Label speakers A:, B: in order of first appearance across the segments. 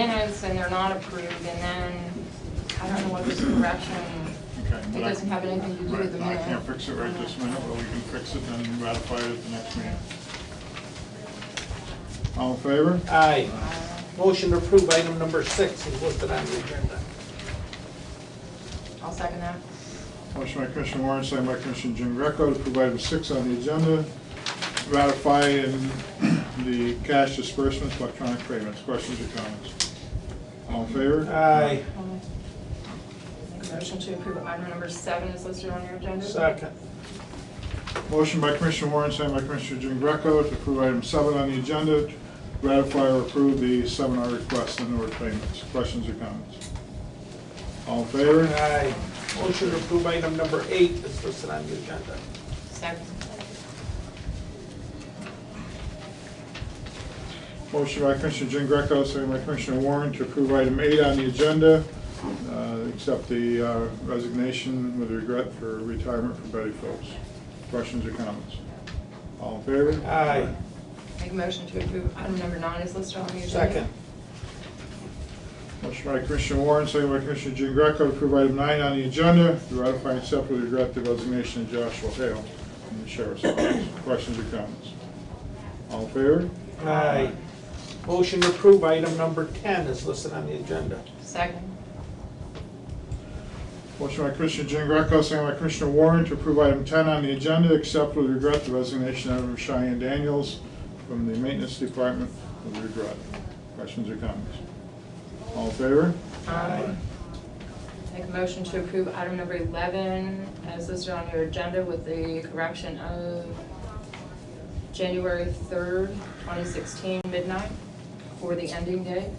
A: minutes and they're not approved, and then, I don't know what was the correction.
B: Okay,
A: It
B: but I-
A: doesn't have anything to do with the Uh,
B: Right,
A: minute.
B: I can't fix it right this minute, but we can fix it and ratify it at the next meeting. All in favor?
C: Aye. Motion to approve item number six is listed on the agenda.
A: I'll second that.
B: Motion by Commissioner Warren, second by Commissioner Jean Greco to approve item six on the agenda, ratifying the cash disbursements, electronic payments. Questions or comments? All in favor?
C: Aye.
A: Make a motion to approve item number seven is listed on your agenda.
C: Second.
B: Motion by Commissioner Warren, second by Commissioner Jean Greco to approve item seven on the agenda, ratify or approve the seminar requests and order payments. Questions or comments? All in favor?
C: Aye. Motion to approve item number eight is listed on the agenda.
A: Second.
B: Motion by Commissioner Jean Greco, second by Commissioner Warren to approve item eight on the agenda, uh, accept the uh, resignation with regret for retirement for Betty Phillips. Questions or comments? All in favor?
C: Aye.
A: Make a motion to approve item number nine is listed on your agenda.
C: Second.
B: Motion by Commissioner Warren, second by Commissioner Jean Greco to approve item nine on the agenda, to ratify and accept with regret the resignation of Joshua Hale from the Sheriff's Office. Questions or comments? All in favor?
C: Aye. Motion to approve item number 10 is listed on the agenda.
A: Second.
B: Motion by Commissioner Jean Greco, second by Commissioner Warren to approve item 10 on the agenda, accept with regret the resignation of Cheyenne Daniels from the Maintenance Department with regret. Questions or comments? All in favor?
A: Um, Make a motion to approve item number 11 as listed on your agenda with the correction of January 3rd, 2016 midnight for the ending date.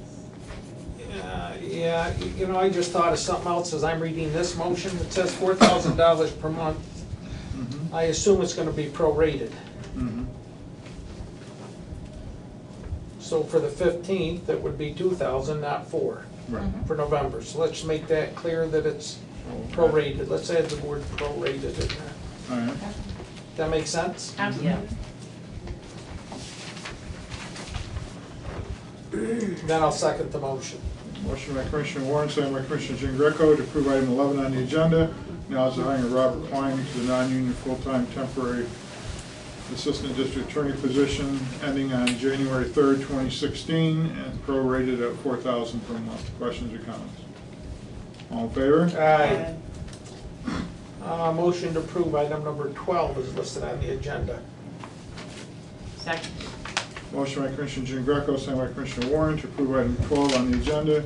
C: Uh, Yeah, y- you know, I just thought of something else as I'm reading this motion. It says $4,000 per month.
B: Mhm.
C: I assume it's going to be prorated.
B: Mhm.
C: So for the 15th, it would be 2,000, not 4.
B: Right.
A: Mm-hmm.
C: for November, so let's make that clear that it's prorated, let's add the word prorated in there.
B: All right.
C: That make sense?
A: Absolutely.
C: Then I'll second the motion.
B: Motion by Commissioner Warren, second by Commissioner Jean Greco to approve item 11 on the agenda. Now is the hiring of Robert Klein to the non-union full-time temporary assistant district attorney position ending on January 3rd, 2016, and prorated at $4,000 per month. Questions or comments? All in favor?
C: Aye. Uh, motion to approve item number twelve is listed on the agenda.
A: Second.
B: Motion by Commissioner Jean Greco, second by Commissioner Warren to approve item 12 on the agenda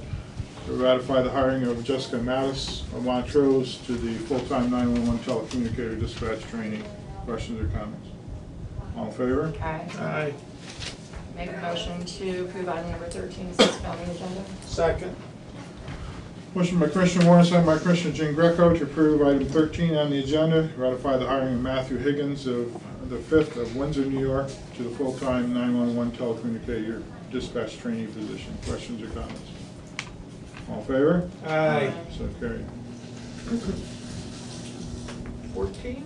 B: to ratify the hiring of Jessica Mattis of Montrose to the full-time 911 telecommunicator dispatch trainee. Questions or comments? All in favor?
A: Aye.
C: Aye.
A: Make a motion to approve item number 13 is listed on the agenda.
C: Second.
B: Motion by Commissioner Warren, second by Commissioner Jean Greco to approve item 13 on the agenda, ratify the hiring of Matthew Higgins of the 5th of Windsor, New York to the full-time 911 telecommunicator dispatch trainee position. Questions or comments? All in favor?
C: Aye.
B: So carried.
C: Fourteen,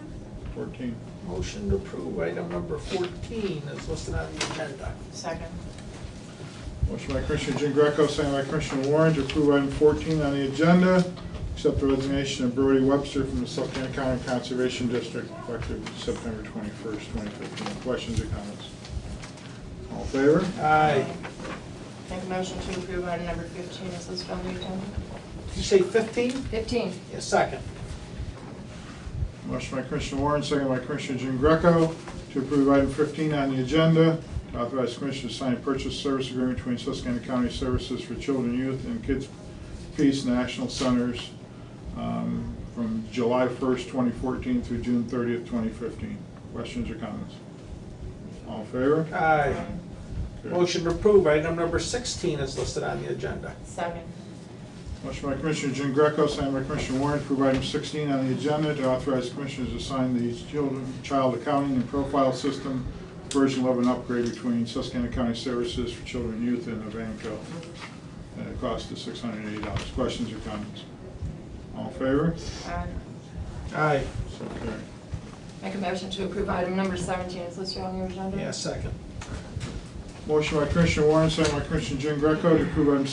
B: 14.
C: motion to approve item number fourteen is listed on the agenda.
A: Second.
B: Motion by Commissioner Jean Greco, second by Commissioner Warren to approve item 14 on the agenda, accept the resignation of Brody Webster from the Spokane County Conservation District effective September 21st, 2015. Questions or comments? All in favor?
C: Aye.
A: Make a motion to approve item number 15 is listed on the agenda.
C: Did you say fifteen?
A: 15.
C: Yeah, second.
B: Motion by Commissioner Warren, second by Commissioner Jean Greco to approve item 15 on the agenda, to authorize Commissioner to sign a purchase service agreement between Susquehanna County Services for Children, Youth, and Kids Peace National Centers um, from July 1st, 2014 through June 30th, 2015. Questions or comments? All in favor?
C: Aye.
B: Carried.
C: Uh, Motion to approve item number sixteen is listed on the agenda.
A: Second.
B: Motion by Commissioner Jean Greco, signed by Commissioner Warren, to approve item 16 on the agenda to authorize commissioners to sign the children- child accounting and profile system version 11 upgrade between Susquehanna County Services for Children and Youth and Evanco at a cost of $680. Questions or comments? All in favor?
A: Aye.
C: Aye.
B: So carried.
A: Make a motion to approve item number 17 is listed on your agenda.
C: Yeah, second.
B: Motion by Commissioner Warren, signed by Commissioner Jean Greco to approve item